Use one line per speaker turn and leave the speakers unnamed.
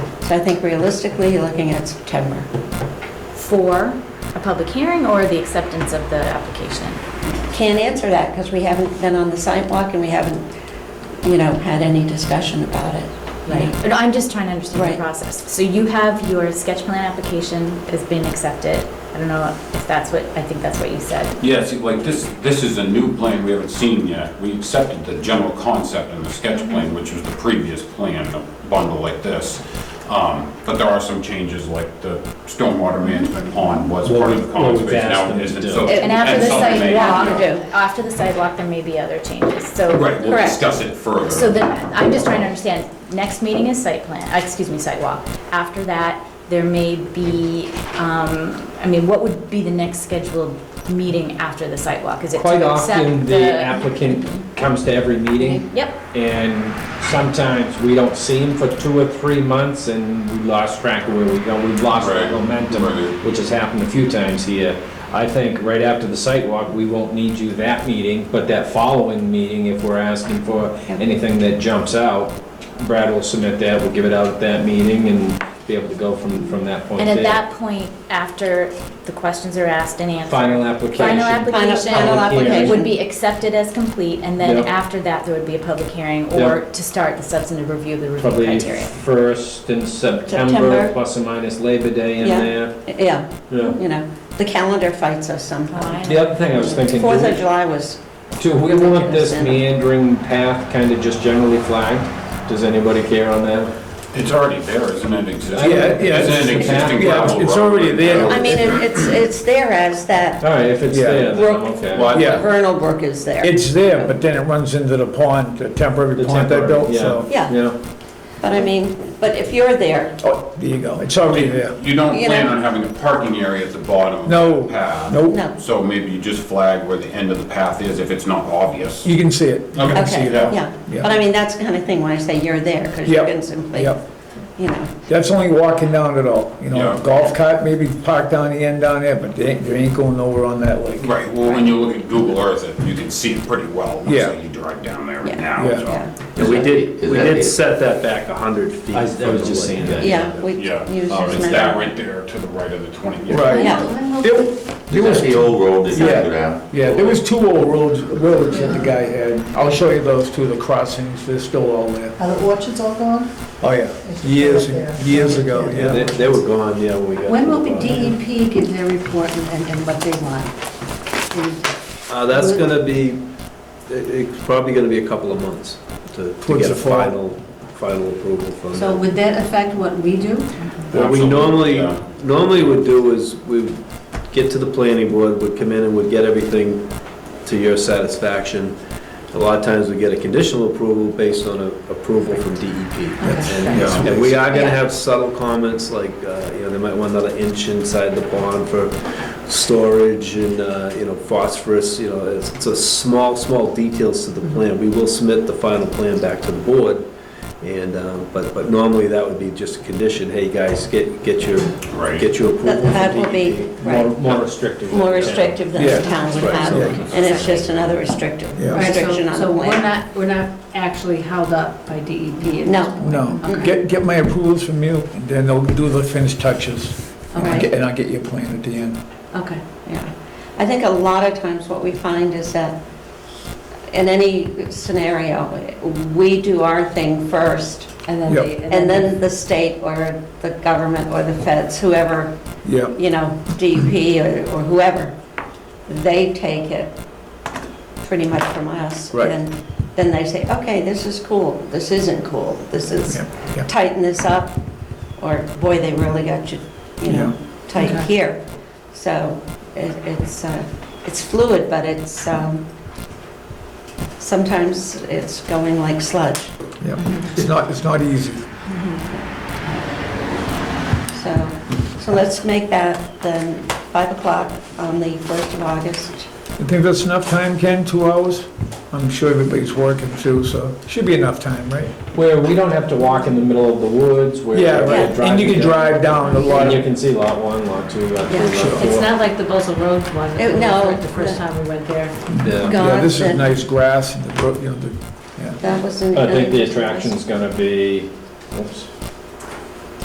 I think realistically, you're looking at September.
for a public hearing or the acceptance of the application?
Can't answer that because we haven't been on the sidewalk and we haven't, you know, had any discussion about it.
Right. No, I'm just trying to understand
Right.
the process. So you have your sketch plan application has been accepted. I don't know if that's what, I think that's what you said.
Yeah, see, like this, this is a new plan we haven't seen yet. We accepted the general concept in the sketch plan, which was the previous plan, a bundle like this. Um, But there are some changes, like the stormwater management pond was
What
part of
we-
the
what
conservation.
we've asked
now
them
it
to
isn't,
do.
so-
And after the
something may-
site walk,
do.
after the site walk, there may be other changes. So.
Right, we'll
Correct.
discuss it further.
So then, I'm just trying to understand, next meeting is site plan, uh, excuse me, site walk. After that, there may be, um, I mean, what would be the next scheduled meeting after the site walk? Is it
Quite
to accept
often, the applicant comes to every meeting,
Yep,
and sometimes we don't see him for two or three months, and we lost track of where we go, we've lost the
Right,
momentum,
right.
which has happened a few times here. I think right after the site walk, we won't need you that meeting, but that following meeting, if we're asking for anything that jumps out, Brad will submit that, we'll give it out at that meeting, and be able to go from, from that point
and
there.
at that point, after the questions are asked and answered,
Final application.
final application
Final
application.
would be accepted as complete, and then
Yep.
after that, there would be a public hearing or to start the substantive review of the review
Probably
criteria.
first in September,
September.
plus or minus Labor Day in
Yeah.
there.
Yeah,
Yeah.
you know, the calendar fights us sometimes.
The other thing I was thinking, do
Fourth of
we-
July was,
do we want this meandering path kind of just generally flagged? Does anybody care on that?
It's already there, isn't it existing?
Yeah, yeah,
Isn't it
it's-
existing
yeah,
gravel
it's
road?
already there.
I mean, it- it's, it's there as that
All right, if it's
Yeah.
there, then I'm
Well-
okay.
Well,
Yeah.
vernal brook is there.
It's there, but then it runs into the pond, the temporary
The
pond they
temporary,
built,
yeah.
so.
Yeah,
Yeah,
but I mean, but if you're there,
Oh, there you go, it's already there.
You don't
You
plan
know.
on having a parking area at the bottom
No.
of the path?
Nope,
no.
So maybe you just flag where the end of the path is if it's not obvious.
you can see it. You
Okay.
can see
Okay,
it.
yeah.
Yeah.
But I mean, that's the kind of thing when I say you're there, because you
Yep,
can simply,
Yep,
you know,
that's only walking down it all, you know,
Yeah.
golf cart maybe parked down the end down there, but they ain't, they ain't going over on that lake.
Right, well, when you look at Google Earth, it- you can see it pretty well, once
Yeah.
you drive down there
Yeah.
now,
Yeah.
so.
yeah.
Yeah, we did, we did set that back 100 feet.
I was- I
from
was
the
just
lake.
saying that.
Yeah, we use
Yeah,
this
Uh, it's that
measure.
right there to the right of the 20.
Right.
Yeah,
It- It
Is
was,
that the old road that used to
Yeah.
go down?
yeah, there was two old roads, roads that the guy had, I'll show you those two, the crossings, they're still all there.
Are the orchards all gone?
Oh, yeah, years, and- years ago,
Yeah.
yeah.
they, they were gone, yeah, when we got.
When
to
will
the
the
bottom.
DEP give their report and, and what they want?
Uh, That's going to be, it- it's probably going to be a couple of months to to
Towards the
get a
fall.
final, final approval from
So
them.
would that affect what we do?
What we
Absolutely,
normally,
yeah.
normally would do is we would get to the planning board, would come in and would get everything to your satisfaction. A lot of times we get a conditional approval based on a approval from DEP. And, uh, And we are gonna have subtle comments like, uh, you know, they might want another inch inside the pond for storage and, uh, you know, phosphorus, you know, it's, it's a small, small details to the
Mm-hmm.
plan. We will submit the final plan back to the board and, um, but, but normally that would be just a condition, hey, guys, get, get your,
Right.
get your approval
that
from E
that will be,
DEP.
More,
right,
more restrictive.
more restrictive than the
E Yeah,
town would
right,
have.
yeah.
And it's just another restrictive,
Yeah.
Right, so-
restriction on the
So we're
plan.
not, we're not actually held up by E DEP?
No.
No, get, get my approvals from you, and then they'll do the finished touches. And I'll get- and I'll get your plan at the end.
Okay.
Yeah. I think a lot of times what we find is that in any scenario, we do our thing first,
And then
Yep.
they-
and then the state or the government or the feds, whoever
Yeah,
you know, DEP or or whoever, they take it pretty much from us.
Right.
And then they say, okay, this is cool, this isn't cool, this is,
Yeah, yeah.
tighten this up, or boy, they really got you, you know, tight
Okay.
here. So it- it's, uh, it's fluid, but it's, um, sometimes it's going like sludge,
yeah. It's not, it's not easy.
so. So let's make that then 5 o'clock on the 1st of August.
You think that's enough time, Ken, two hours? I'm sure everybody's working too, so should be enough time, right?
Where we don't have to walk in the middle of the woods, where.
Yeah,
we're
right.
driving
And you can
down.
drive down a lot
And you
of,
can see lot one, lot two, lot three,
Yeah,
lot
sure.
four.
It's not like the Buzzell Road one,
It- no.
like the first time we went there.
Yeah.
yeah, this is
Gone,
nice grass, and the, bro- you know, the, yeah.
That was in.
I think the attraction's gonna be, oops,